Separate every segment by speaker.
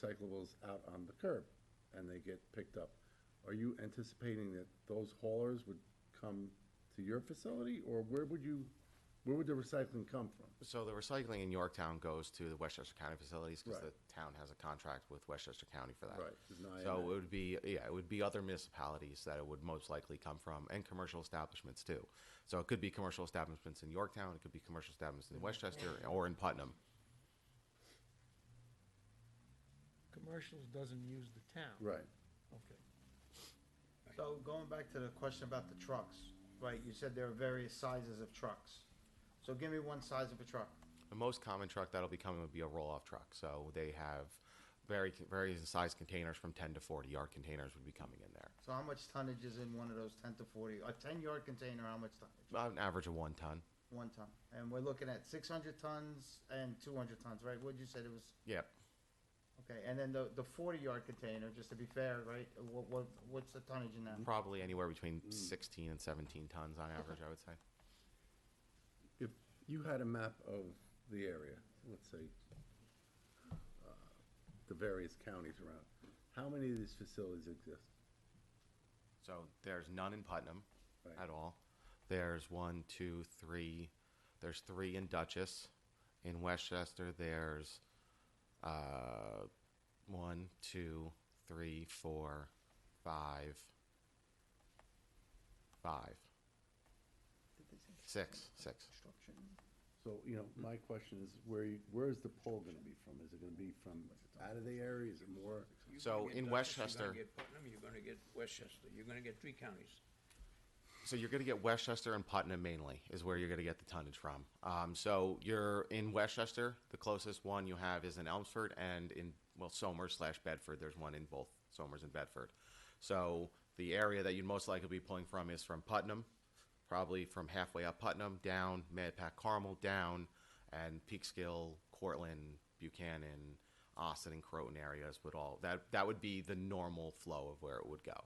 Speaker 1: recyclables out on the curb and they get picked up. Are you anticipating that those haulers would come to your facility or where would you, where would the recycling come from?
Speaker 2: So the recycling in Yorktown goes to the Westchester County facilities because
Speaker 1: Right.
Speaker 2: the town has a contract with Westchester County for that.
Speaker 1: Right, it's an
Speaker 2: So it
Speaker 1: IMA.
Speaker 2: would be yeah, it would be other municipalities that it would most likely come from, and commercial establishments too. So it could be commercial establishments in Yorktown, it could be commercial establishments in Westchester or in Putnam.
Speaker 3: Commercials doesn't use the town.
Speaker 1: Right.
Speaker 3: Okay.
Speaker 4: So going back to the question about the trucks, right, you said there are various sizes of trucks. So give me one size of a truck.
Speaker 2: The most common truck that'll be coming would be a roll-off truck. So they have very various size containers from 10 to 40 yard containers would be coming in there.
Speaker 4: So how much tonnage is in one of those ten to forty, a ten yard container, how much tonnage?
Speaker 2: About an average of one ton.
Speaker 4: One ton. And we're looking at six hundred tons and two hundred tons, right? What'd you say it was?
Speaker 2: Yeah,
Speaker 4: Okay, and then the, the forty yard container, just to be fair, right, what, what, what's the tonnage in that?
Speaker 2: probably anywhere between
Speaker 1: Mm.
Speaker 2: 16 and 17 tons on average, I would say.
Speaker 1: If you had a map of the area, let's say, uh, the various counties around, how many of these facilities exist?
Speaker 2: So there's none in Putnam
Speaker 1: Right.
Speaker 2: at all. There's one, two, three. There's three in Dutchess. In Westchester, there's uh, one, two, three, four, five, five, six, six.
Speaker 1: So, you know, my question is, where, you- where is the pull gonna be from? Is it gonna be from out of the area? Is it more?
Speaker 5: You're
Speaker 2: So
Speaker 5: gonna get
Speaker 2: in
Speaker 5: Dutchess,
Speaker 2: Westchester-
Speaker 5: You're gonna get Putnam, you're gonna get Westchester, you're gonna get three counties.
Speaker 2: So you're going to get Westchester and Putnam mainly is where you're going to get the tonnage from. Um, so you're in Westchester. The closest one you have is in Elmsford and in well Somers slash Bedford. There's one in both Somers and Bedford. So the area that you'd most likely be pulling from is from Putnam, probably from halfway up Putnam down Medpac Carmel down, and Peekskill, Cortland, Buchanan, Austin, and Croton areas would all that that would be the normal flow of where it would go.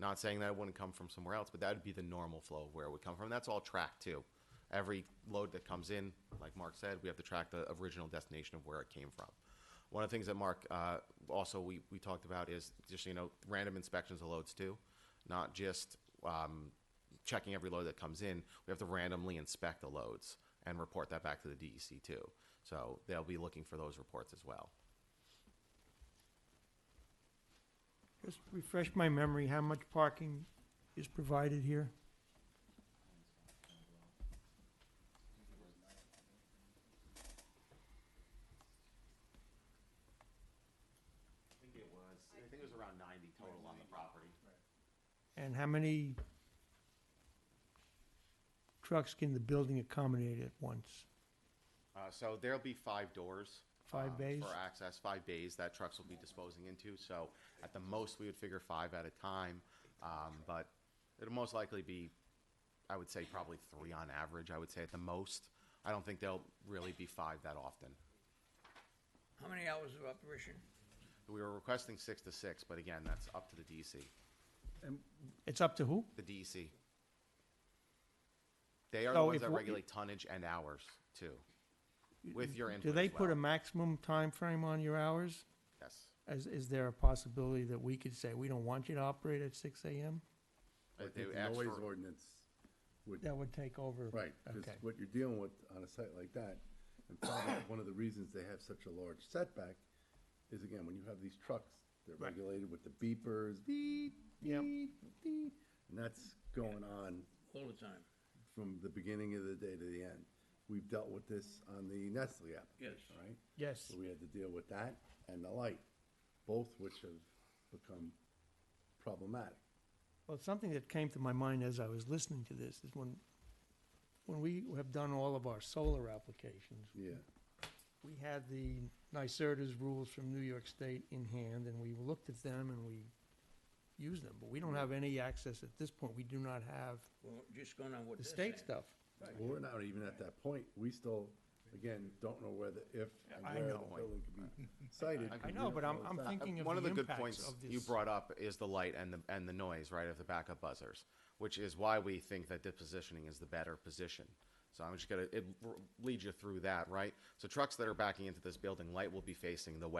Speaker 2: Not saying that it wouldn't come from somewhere else, but that would be the normal flow of where it would come from. That's all tracked too. Every load that comes in, like Mark said, we have to track the original destination of where it came from. One of the things that Mark uh, also we, we talked about is just you know random inspections of loads too, not just um, checking every load that comes in. We have to randomly inspect the loads and report that back to the DEC too. So they'll be looking for those reports as well.
Speaker 3: Just refresh my memory, how much parking is provided here?
Speaker 2: I think it was I think it was around 90 total on the property.
Speaker 3: And how many trucks can the building accommodate at once?
Speaker 2: Uh, so there'll be five doors.
Speaker 3: Five
Speaker 2: um,
Speaker 3: bays?
Speaker 2: For access, five bays that trucks will be disposing into. So at the most, we would figure five at a time. Um, but it'll most likely be, I would say, probably three on average, I would say at the most. I don't think there'll really be five that often.
Speaker 5: How many hours of operation?
Speaker 2: We were requesting six to six, but again, that's up to the DEC.
Speaker 3: It's up to who?
Speaker 2: The DEC. They are the
Speaker 3: So
Speaker 2: ones
Speaker 3: if
Speaker 2: that
Speaker 3: we-
Speaker 2: regulate tonnage and hours too, with your input
Speaker 3: Do they
Speaker 2: as
Speaker 3: put a
Speaker 2: well.
Speaker 3: maximum time frame on your hours?
Speaker 2: Yes.
Speaker 3: Is, is there a possibility that we could say, we don't want you to operate at six AM?
Speaker 1: I
Speaker 2: They
Speaker 1: think the
Speaker 2: asked
Speaker 1: noise
Speaker 2: for-
Speaker 1: ordinance would,
Speaker 3: That would take over.
Speaker 1: right, because
Speaker 3: Okay.
Speaker 1: what you're dealing with on a site like that, and probably one of the reasons they have such a large setback is again, when you have these trucks, they're regulated with the beepers, beep,
Speaker 3: Yep.
Speaker 1: beep, beep, and that's going on
Speaker 5: All the time,
Speaker 1: from the beginning of the day to the end. We've dealt with this on the Nestle application,
Speaker 5: Yes.
Speaker 1: right?
Speaker 3: Yes.
Speaker 1: So we had to deal with that and the light, both which have become problematic.
Speaker 3: Well, something that came to my mind as I was listening to this is when, when we have done all of our solar applications,
Speaker 1: Yeah,
Speaker 3: we had the NYSERDA's rules from New York State in hand, and we looked at them and we used them, but we don't have any access at this point, we do not have
Speaker 5: well, just going on what
Speaker 3: the
Speaker 5: they're
Speaker 3: state
Speaker 5: saying.
Speaker 3: stuff.
Speaker 1: Well, we're not even at that point. We still, again, don't know whether, if, and
Speaker 3: I
Speaker 1: where the
Speaker 3: know.
Speaker 1: building could be sited.
Speaker 3: I know, but I'm,
Speaker 1: It's
Speaker 3: I'm
Speaker 1: not-
Speaker 3: thinking of
Speaker 2: Uh, one of
Speaker 3: the
Speaker 2: the good
Speaker 3: impacts
Speaker 2: points
Speaker 3: of
Speaker 2: you
Speaker 3: this.
Speaker 2: brought up is the light and the and the noise right of the backup buzzers which is why we think that this positioning is the better position So I'm just gonna, it r- leads you through that, right? So trucks that are backing into this building, light will be facing the west.